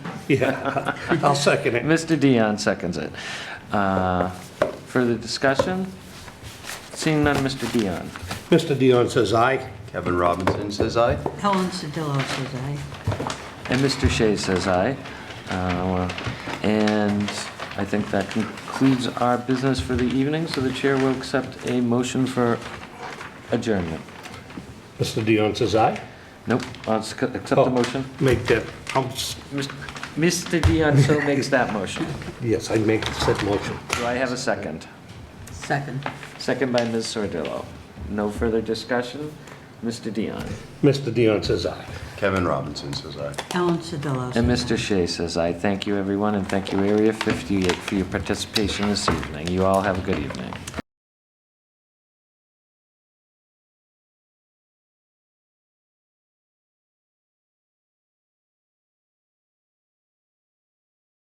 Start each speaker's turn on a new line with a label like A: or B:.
A: Yeah, I'll second it.
B: Mr. Dion seconds it. Uh, Further discussion? Seeing none, Mr. Dion.
A: Mr. Dion says aye.
C: Kevin Robinson says aye.
D: Helen Sodillo says aye.
B: And Mr. Shea says aye. Uh, And I think that concludes our business for the evening, so the chair will accept a motion for adjournment.
A: Mr. Dion says aye.
B: Nope, I'll s- accept the motion.
A: Make that, I'll s-
B: Mr. Dion so makes that motion.
A: yes, I make said motion.
B: Do I have a second?
D: Second.
B: Second by Ms. Sordillo. No further discussion? Mr. Dion.
A: Mr. Dion says aye.
C: Kevin Robinson says aye.
D: Helen Sodillo.
B: And
D: says aye.
B: Mr. Shea says I Thank you, everyone, and thank you, Area 58, for your participation this evening. You all have a good evening.